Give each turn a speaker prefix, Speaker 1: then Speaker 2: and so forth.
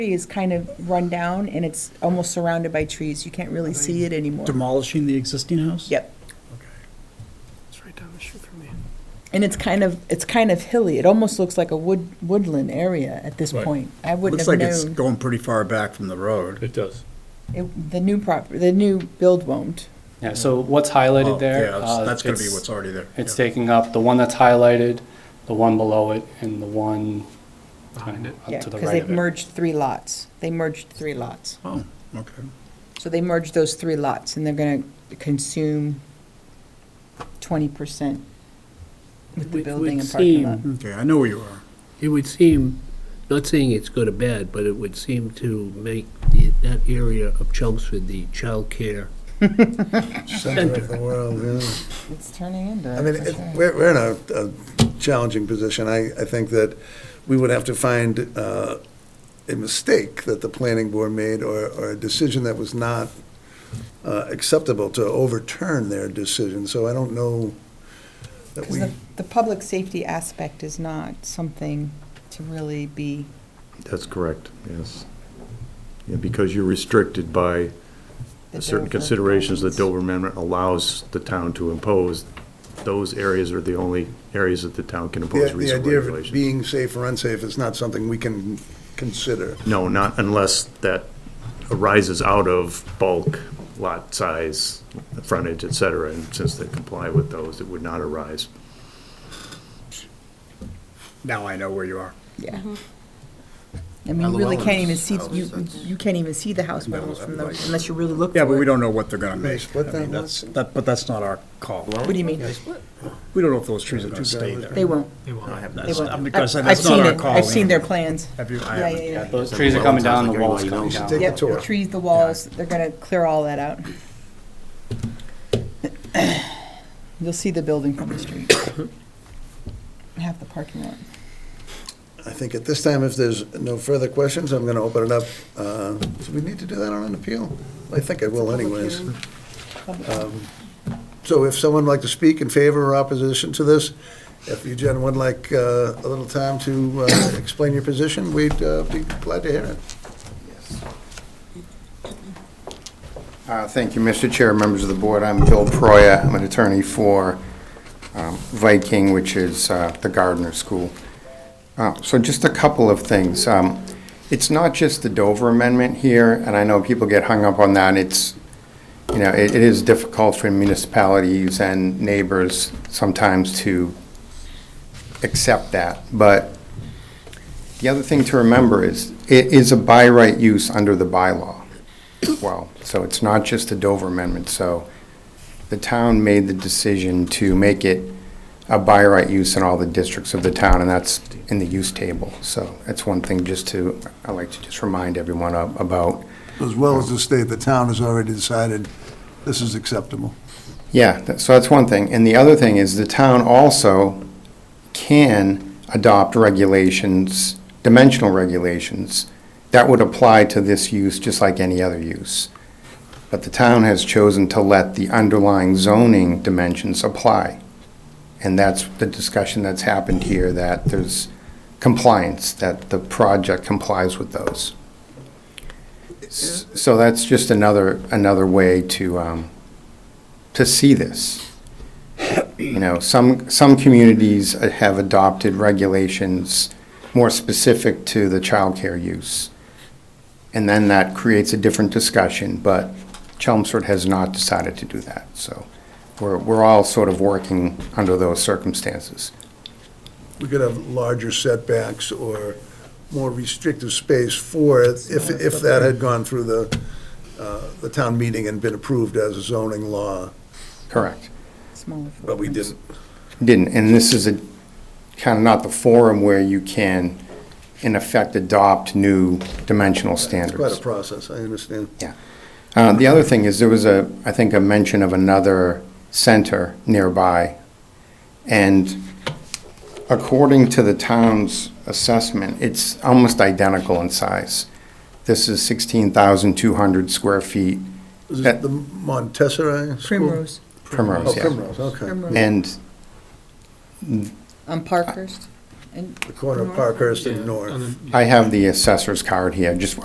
Speaker 1: is kind of run down and it's almost surrounded by trees. You can't really see it anymore.
Speaker 2: Demolishing the existing house?
Speaker 1: Yep.
Speaker 3: It's right down the street from me.
Speaker 1: And it's kind of, it's kind of hilly. It almost looks like a wood, woodland area at this
Speaker 4: Right.
Speaker 1: point. I wouldn't
Speaker 2: Looks like
Speaker 1: have
Speaker 2: it's
Speaker 1: known.
Speaker 2: going pretty far back from the road.
Speaker 4: It does.
Speaker 1: It- The new prop, the new build won't.
Speaker 5: Yeah, so what's
Speaker 2: Oh,
Speaker 5: highlighted there?
Speaker 2: Yeah,
Speaker 5: uh,
Speaker 2: that's- that's gonna be
Speaker 5: it's-
Speaker 2: what's already there.
Speaker 5: It's
Speaker 2: Yeah.
Speaker 5: taking up the one that's highlighted, the one below it, and the one
Speaker 3: Behind it.
Speaker 5: up
Speaker 1: Yeah,
Speaker 5: to the
Speaker 1: because
Speaker 5: right
Speaker 1: they've
Speaker 5: of it.
Speaker 1: merged three lots. They merged three lots.
Speaker 2: Oh, okay.
Speaker 1: So they merged those three lots and they're going to consume 20% with the
Speaker 6: Would-
Speaker 1: building
Speaker 6: would
Speaker 1: and parking
Speaker 6: seem-
Speaker 1: lot.
Speaker 2: Okay, I know where you are.
Speaker 6: It would seem, not saying it's good or bad, but it would seem to make the- that area of Chelmsford the childcare.
Speaker 7: center of the world, yeah.
Speaker 1: It's turning into.
Speaker 7: I mean,
Speaker 1: for
Speaker 7: it-
Speaker 1: sure.
Speaker 7: we're, we're in a, a challenging position. I, I think that we would have to find uh, a mistake that the planning board made or, or a decision that was not uh, acceptable to overturn their decision. So I don't know that
Speaker 1: Because
Speaker 7: we,
Speaker 1: the, the public safety aspect is not something to really be,
Speaker 8: That's correct, yes. Yeah, Because you're restricted by
Speaker 1: The
Speaker 8: certain
Speaker 1: Dover
Speaker 8: considerations that
Speaker 1: guidelines.
Speaker 8: Dover Amendment allows the town to impose. Those areas are the only areas that the town can impose
Speaker 7: the the
Speaker 8: reasonable
Speaker 7: idea of
Speaker 8: regulations.
Speaker 7: being safe or unsafe is not something we can consider.
Speaker 8: No, not unless that arises out of bulk, lot size, frontage, et cetera. And since they comply with those, it would not arise.
Speaker 2: Now I know where you are.
Speaker 1: yeah. I mean, you really can't even see, you, you can't even see the house models from the, unless you really look for it.
Speaker 2: Yeah, but we don't know what they're gonna
Speaker 7: They
Speaker 2: make.
Speaker 7: split
Speaker 2: I
Speaker 7: that
Speaker 2: mean,
Speaker 7: lot?
Speaker 2: that's, that, but that's not our call.
Speaker 1: What do you mean?
Speaker 2: We don't know if those trees are gonna stay there.
Speaker 1: They won't,
Speaker 3: They won't.
Speaker 1: they
Speaker 2: That's-
Speaker 1: won't.
Speaker 2: I'm
Speaker 1: I've
Speaker 2: gonna say
Speaker 1: I've
Speaker 2: that's not
Speaker 1: seen
Speaker 2: our
Speaker 1: it,
Speaker 2: call.
Speaker 1: I've seen their plans.
Speaker 2: Have you, I
Speaker 1: Yeah,
Speaker 2: haven't.
Speaker 1: yeah, yeah.
Speaker 5: Those trees are coming down, the wall's coming
Speaker 7: knows.
Speaker 5: down.
Speaker 7: Take a
Speaker 1: Yep,
Speaker 7: tour.
Speaker 1: the trees, the walls, they're gonna clear all that out. You'll see the building from the street. Half the parking lot.
Speaker 7: I think at this time, if there's no further questions, I'm going to open it up. Uh, Do we need to do that on an appeal? I think I will anyways. Um, So if someone would like to speak in favor or opposition to this, if you gentlemen would like uh, a little time to uh, explain your position, we'd uh, be glad to hear it.
Speaker 9: Uh, Thank you, Mr. Chair, members of the board. I'm Bill Proya. I'm an attorney for um, Viking, which is uh, the Gardner School. Uh, So just a couple of things. Um, It's not just the Dover Amendment here, and I know people get hung up on that. It's, you know, it it is difficult for municipalities and neighbors sometimes to accept that. But the other thing to remember is, it is a by right use under the bylaw well. So it's not just the Dover amendment. So the town made the decision to make it a by right use in all the districts of the town, and that's in the use table. So that's one thing just to, I like to just remind everyone of- about.
Speaker 7: As well as the state, the town has already decided this is acceptable.
Speaker 9: Yeah, that- so that's one thing. And the other thing is the town also can adopt regulations, dimensional regulations, that would apply to this use just like any other use. But the town has chosen to let the underlying zoning dimensions apply. And that's the discussion that's happened here, that there's compliance, that the project complies with those. S- So that's just another, another way to, um, to see this. You know, some, some communities have adopted regulations more specific to the childcare use. And then that creates a different discussion, but Chelmsford has not decided to do that. So we're, we're all sort of working under those circumstances.
Speaker 7: We could have larger setbacks or more restrictive space for, it if, if that had gone through the, uh, the town meeting and been approved as a zoning law,
Speaker 9: Correct.
Speaker 1: Smaller
Speaker 7: but we
Speaker 1: footprint.
Speaker 7: didn't.
Speaker 9: Didn't, and this is a, kind of not the forum where you can, in effect, adopt new dimensional
Speaker 7: It's
Speaker 9: standards.
Speaker 7: quite a process, I understand.
Speaker 9: Uh, The other thing is, there was a, I think, a mention of another center nearby. And according to the town's assessment, it's almost identical in size. This is 16,200 square feet,
Speaker 7: Is
Speaker 9: That-
Speaker 7: it the Montessori School?
Speaker 1: Primrose,
Speaker 9: Primrose,
Speaker 7: Oh,
Speaker 9: yeah.
Speaker 7: Primrose, okay.
Speaker 1: Primrose.
Speaker 9: And
Speaker 1: on Parkhurst. And
Speaker 7: the corner of Parkhurst and
Speaker 3: Yeah,
Speaker 7: North.
Speaker 3: on the-
Speaker 9: I have the assessor's card here, just